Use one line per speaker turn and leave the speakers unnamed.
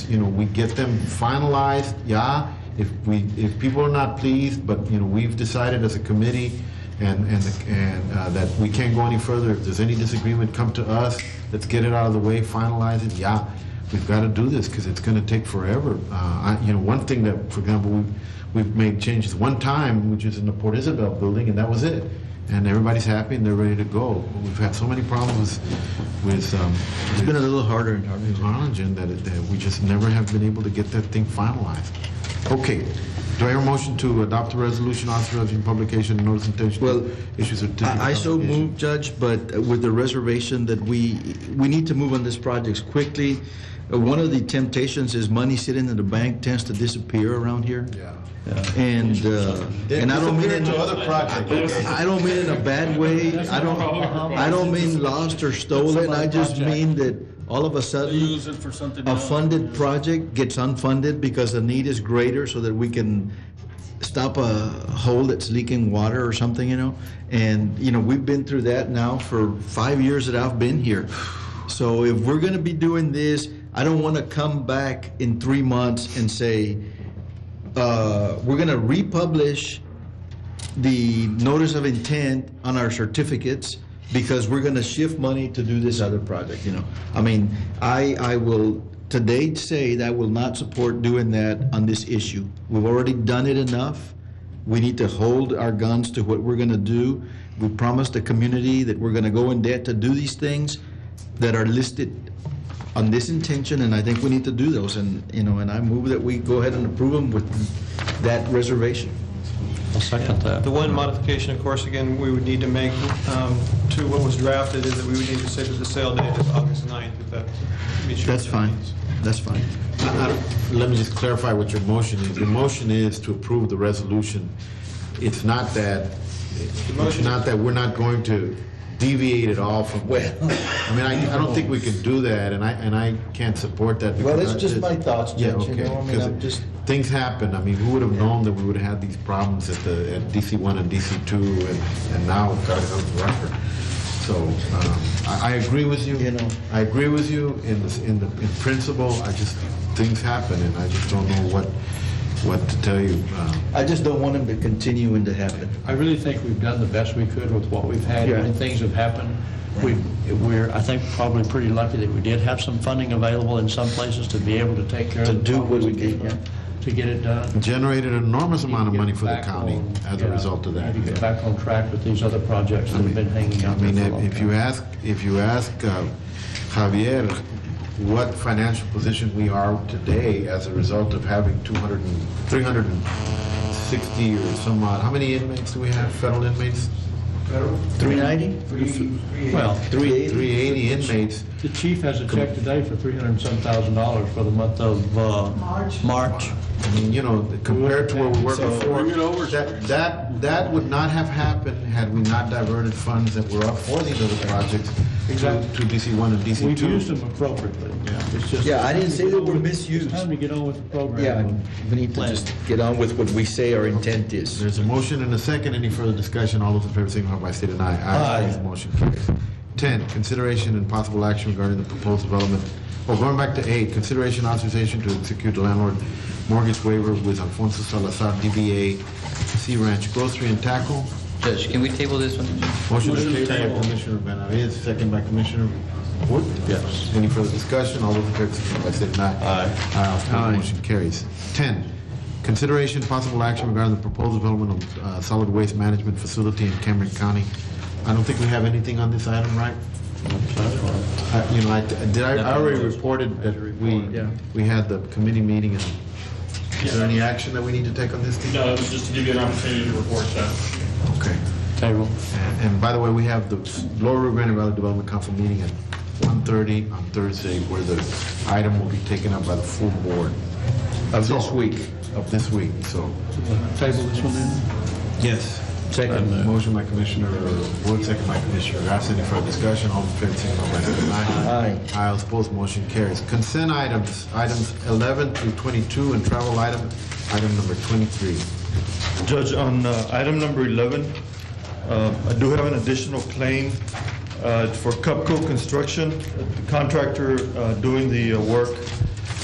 you know, we get them finalized, yeah. If we, if people are not pleased, but, you know, we've decided as a committee and, and, and uh, that we can't go any further, if there's any disagreement, come to us, let's get it out of the way, finalize it, yeah. We've got to do this because it's going to take forever. Uh, I, you know, one thing that, for example, we've, we've made changes one time, which is in the Port Isabel building, and that was it. And everybody's happy and they're ready to go. We've had so many problems with, um,
It's been a little harder and harder.
in Harlingen that, it- that we just never have been able to get that thing finalized. Okay, do I hear a motion to adopt a resolution authorizing publication and notice intention?
Well,
issues
I I so move, Judge, but with the reservation that we, we need to move on this project quickly. Uh, One of the temptations is money sitting in the bank tends to disappear around here.
Yeah.
And, uh, and I don't mean it,
to other projects.
I don't mean in a bad way. I don't, I don't mean lost or stolen. I just mean that all of a sudden,
Use it for something
a
else.
funded project gets unfunded because the need is greater so that we can stop a hole that's leaking water or something, you know? And, you know, we've been through that now for five years that I've been here. So if we're gonna be doing this, I don't wanna come back in three months and say, uh, we're gonna republish the notice of intent on our certificates because we're gonna shift money to do this other project, you know? I mean, I, I will today say that I will not support doing that on this issue. We've already done it enough. We need to hold our guns to what we're gonna do. We promised the community that we're gonna go in debt to do these things that are listed on this intention, and I think we need to do those, and, you know, and I move that we go ahead and approve them with that reservation.
The one modification, of course, again, we would need to make um, to what was drafted is that we would need to say that the sale date is August 9th, if that meets your...
That's fine, that's fine.
Uh, Let me just clarify what your motion is. Your motion is to approve the resolution. It's not that, it's
motion-
not that we're not going to deviate at all from, I mean, I, I don't think we can do that, and I, and I can't support that.
Well,
because
it's
I
just my thoughts,
Yeah,
Judge, you
okay,
know, I mean,
'cause
I'm
it-
just-
Things happen, I mean, who would have known that we would have had these problems at the, at DC one and DC two, and, and now, God, it's on the record. So, um, I, I agree with you.
You know.
I agree with you in the, in the, in principle, I just, things happen, and I just don't know what, what to tell you. Um,
I just don't want them to continuing to happen.
I really think we've done the best we could with what we've had,
Yeah.
and things have happened. We- We're, I think, probably pretty lucky that we did have some funding available in some places to be able to take care of.
To
the
do what
problems
we did, yeah.
To get it done.
Generated an enormous amount of money for the
Get back
county
on-
as a
yeah,
result of that.
we need
yeah.
to Get back on track with these other projects that have been hanging
I
out there
mean,
for a
if
long
if you
time.
ask, if you ask uh, Javier what financial position we are today as a result of having 200, and- 360 or some odd, how many inmates do we have, federal inmates?
390?
Well,
380?
380 inmates.
the chief has a check today for 300 and some thousand dollars for the month of, uh... March. March.
I mean, you know, compared to where we were
So-
before,
Bring it over.
that, that, that would not have happened had we not diverted funds that were up for these other projects to
Exactly.
to DC1 and DC2.
We've used them appropriately. It's just-
Yeah, I didn't say they were misused.
It's time to get on with the program.
Yeah,
and
we need to
plan.
just get on with what we say our intent is.
There's a motion and a second. Any further discussion? All those in favor signify by state and I.
Aye.
The Motion carries. Ten, consideration and possible action regarding the proposed development. Oh, going back to eight, consideration authorization to execute the landlord mortgage waiver with Alfonso Salazar, DBA Sea Ranch Grocery and Tackle.
Judge, can we table this one?
Motion to table by Commissioner Benavides, second by Commissioner Wood. Yes. Any further discussion? All those in favor signify by state and I. Aye. Aye, opposed, motion carries. Ten, consideration possible action regarding the proposed development of uh, solid waste management facility in Cameron County. I don't think we have anything on this item, right? I- You know, I, did I, I already reported that we, we had the committee meeting. and Is there any action that we need to take on this? Keith?
No, it was just to give you an opportunity to report that.
Okay.
Table.
And and by the way, we have the Lower Rio Grande Valley Development Council meeting at 1:30 on Thursday, where the item will be taken up by the full board. Of this week. Of this week, so.
Table this one in.
Yes. Second. Motion by Commissioner Wood, second by Commissioner Garcia. Any further discussion? All in favor, signify by saying aye. Aye. Aye, opposed, motion carries. Consent items, items 11 through 22, and travel item, item number 23.
Judge, on uh, item number 11, uh, I do have an additional claim uh, for Cupco Construction, the contractor uh, doing the uh, work